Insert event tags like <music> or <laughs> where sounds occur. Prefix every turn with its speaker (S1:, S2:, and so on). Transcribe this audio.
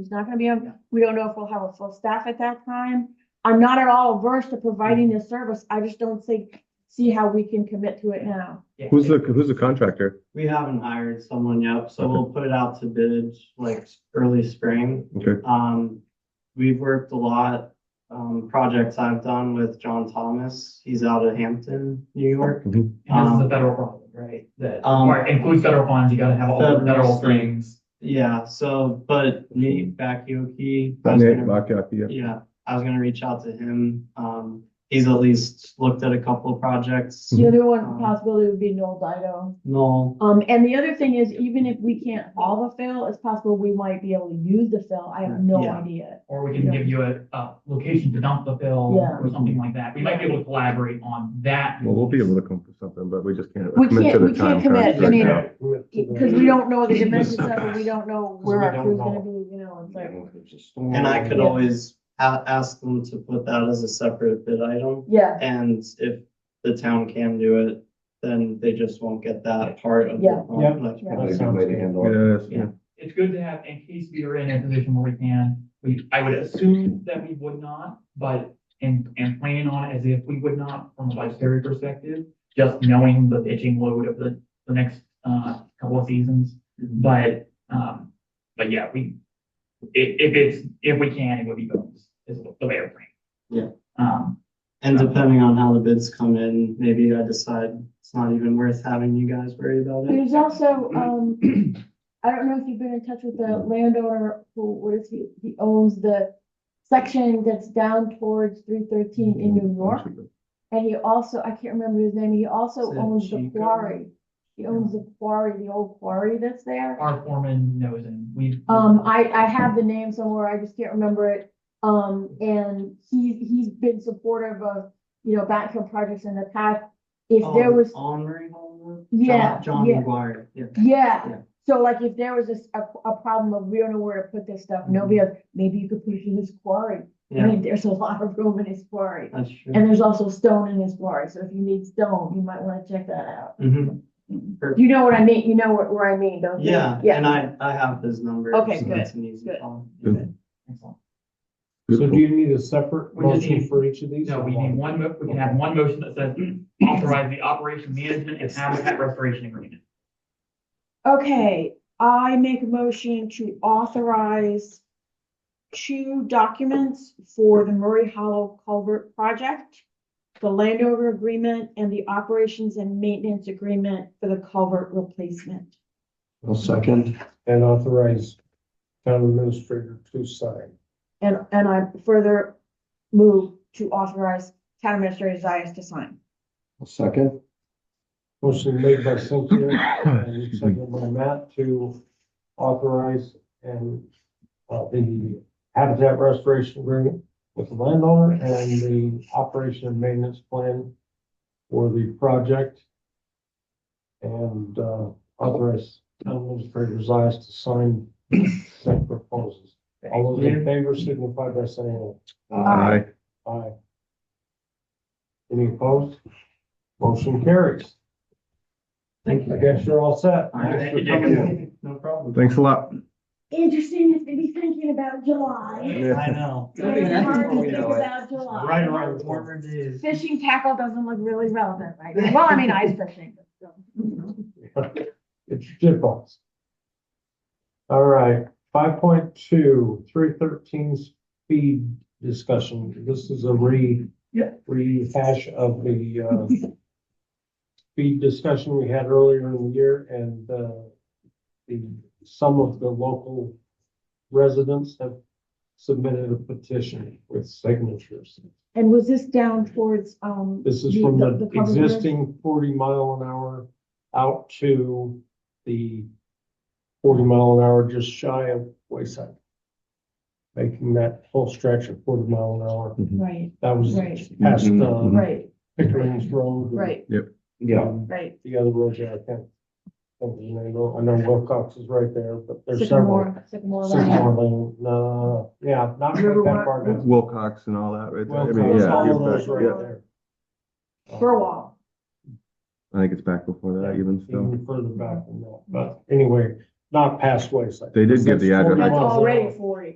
S1: It's not gonna be, a- we don't know if we'll have a full staff at that time. I'm not at all averse to providing this service. I just don't think, see how we can commit to it now.
S2: Yeah,
S3: Who's the, who's the contractor?
S2: We haven't hired someone yet, so we'll put it out to bid like early spring.
S3: Okay.
S2: Um, we've worked a lot, um, projects I've done with John Thomas. He's out of Hampton, New York.
S4: And this is
S2: Um,
S4: a federal problem, right? That
S2: um,
S4: require- includes federal funds, you gotta have all the
S2: Federal
S4: federal
S2: thing.
S4: things.
S2: Yeah, so, but Nate Bakioki. I was
S3: Nate
S2: gonna-
S3: Bakyak, yeah.
S2: Yeah, I was gonna reach out to him. Um, he's at least looked at a couple of projects.
S5: Mm-hmm.
S1: The other one possibility would be Noel Dido.
S2: Noel,
S1: Um, and the other thing is, even if we can't haul the fill, it's possible we might be able to use the fill. I have no
S2: Yeah.
S1: idea.
S4: Or we can
S1: Yeah.
S4: give you a, a location to dump the bill
S1: Yeah.
S4: or something like that. We might be able to collaborate on that.
S3: Well, we'll be able to come up with something, but we just can't.
S1: We
S3: commit to
S1: can't-
S3: the
S1: we can't
S3: time
S1: commit. I
S3: crunch right
S1: mean,
S3: now.
S1: Cause we don't know the dimensions of it. We don't
S5: <laughs>
S1: know where
S5: we
S1: our
S5: don't
S1: crew's gonna
S5: know.
S1: be, you know, it's like,
S2: and I could
S1: Yeah.
S2: always a- ask them to put that as a separate bid item.
S1: yeah,
S2: And if the town can do it, then they just won't get that part of
S1: Yeah.
S2: the.
S5: Yeah.
S2: like,
S1: Yeah.
S5: That's a good way to handle it.
S3: Yes, yeah.
S2: Yeah.
S4: It's good to have, in case we are in a position where we can, we, I would assume that we would not, but, and, and plan on it as if we would not from a budgetary perspective, just knowing the pitching load of the, the next, uh, couple of seasons. But, um, but yeah, we, if, if it's, if we can, it would be bonus, is the way I'm thinking.
S2: Yeah.
S4: Um,
S2: And depending on how the bids come in, maybe I decide it's not even worth having you guys worry about it.
S1: There's also, um, I don't know if you've been in touch with the landowner who, what is he, he owns the section that's down towards three thirteen in New York. And he also, I can't remember his name, he also
S2: Is it
S1: owns the
S2: Chico?
S1: quarry. He owns the quarry, the old quarry that's
S2: Uh-huh.
S1: there.
S4: our foreman knows and we've.
S1: Um, I, I have the name somewhere, I just can't remember it. Um, and he, he's been supportive of, you know, backhoe projects in the past. If there
S2: Oh,
S1: was,
S2: Omri Hall?
S1: Yeah,
S2: John
S1: yeah.
S2: John McGuire, yeah.
S1: yeah,
S2: Yeah.
S1: so like if there was a s- a, a problem of we don't know where to put this stuff, nobody else, maybe you could put it in his quarry. I
S2: Mm-hmm. Yeah, Mm-hmm.
S1: mean, there's a lot of room in his quarry,
S2: that's true.
S1: and there's also stone in his quarry, so if you need stone, you might wanna check that out.
S2: Mhm.
S1: You know what I mean, you know what, where I mean, don't you?
S2: Yeah,
S1: Yeah.
S2: and I, I have his number.
S1: Okay,
S2: so
S1: good,
S2: it's an easy
S1: good.
S2: call.
S3: Good.
S4: Excellent.
S5: So do you need a separate
S4: We just
S5: motion
S4: need-
S5: for each of these?
S4: No,
S5: or
S4: we need one, mo- we can have one motion that says <clears throat> authorize the operation management and habitat restoration agreement.
S1: Okay, I make a motion to authorize two documents for the Murray Hollow Culvert Project, the landowner agreement and the operations and maintenance agreement for the culvert replacement.
S5: I'll second and authorize town administrator to sign.
S1: And, and I further move to authorize town administrator Zias to sign.
S5: I'll second. Motion made by Cynthia and
S3: Excuse me.
S5: seconded by Matt to authorize and uh, the habitat restoration agreement with the landowner and the operation and maintenance plan for the project. And uh, authorize town administrator's eyes to sign said proposals. All those in favor signify by saying
S3: Aye.
S5: aye. Aye. Any opposed? Motion carries.
S2: Thank you.
S5: I guess you're all set.
S2: All right.
S5: Thanks for coming in.
S2: No problem.
S3: Thanks a lot.
S1: Interesting to be thinking about July.
S3: Yeah.
S2: I know.
S1: It's hard to think about July.
S2: Right around the corner days.
S1: Fishing tackle doesn't look really relevant right now. Well, I mean, ice fishing. but still.
S5: It's shit balls. All right, five point two, three thirteen speed discussion. This is a re.
S4: Yeah.
S5: Rehash of the, uh, speed discussion we had earlier in the year and, uh, the, some of the local residents have submitted a petition with signatures.
S1: And was this down towards, um?
S5: This is from the
S1: public road?
S5: existing forty mile an hour out to the forty mile an hour just shy of Wayside. Making that full stretch of forty mile an hour.
S1: Right,
S5: That was
S1: Right.
S5: past
S3: Mm-hmm.
S5: uh,
S1: right,
S5: Pickering's Road. and,
S1: right,
S5: um,
S1: right.
S5: The other roads there, I can't. think of the name of it. I know Wilcox is right there, but there's several.
S1: Sycamore, Sycamore Lane.
S5: Sycamore Lane, no, yeah, not quite
S1: River
S5: that
S1: Rock.
S5: far down.
S3: Wilcox and all that, right? there. I mean,
S5: Wilcox,
S3: yeah,
S5: all of
S3: it
S5: those
S3: gets back-
S5: right
S3: yeah,
S5: there.
S1: Burwell.
S3: I think it's back before that even still.
S5: even further back than that, but anyway, not past wayside.
S3: They did give the address.
S5: That's forty
S1: That's
S5: miles an
S1: already
S5: hour.
S1: forty.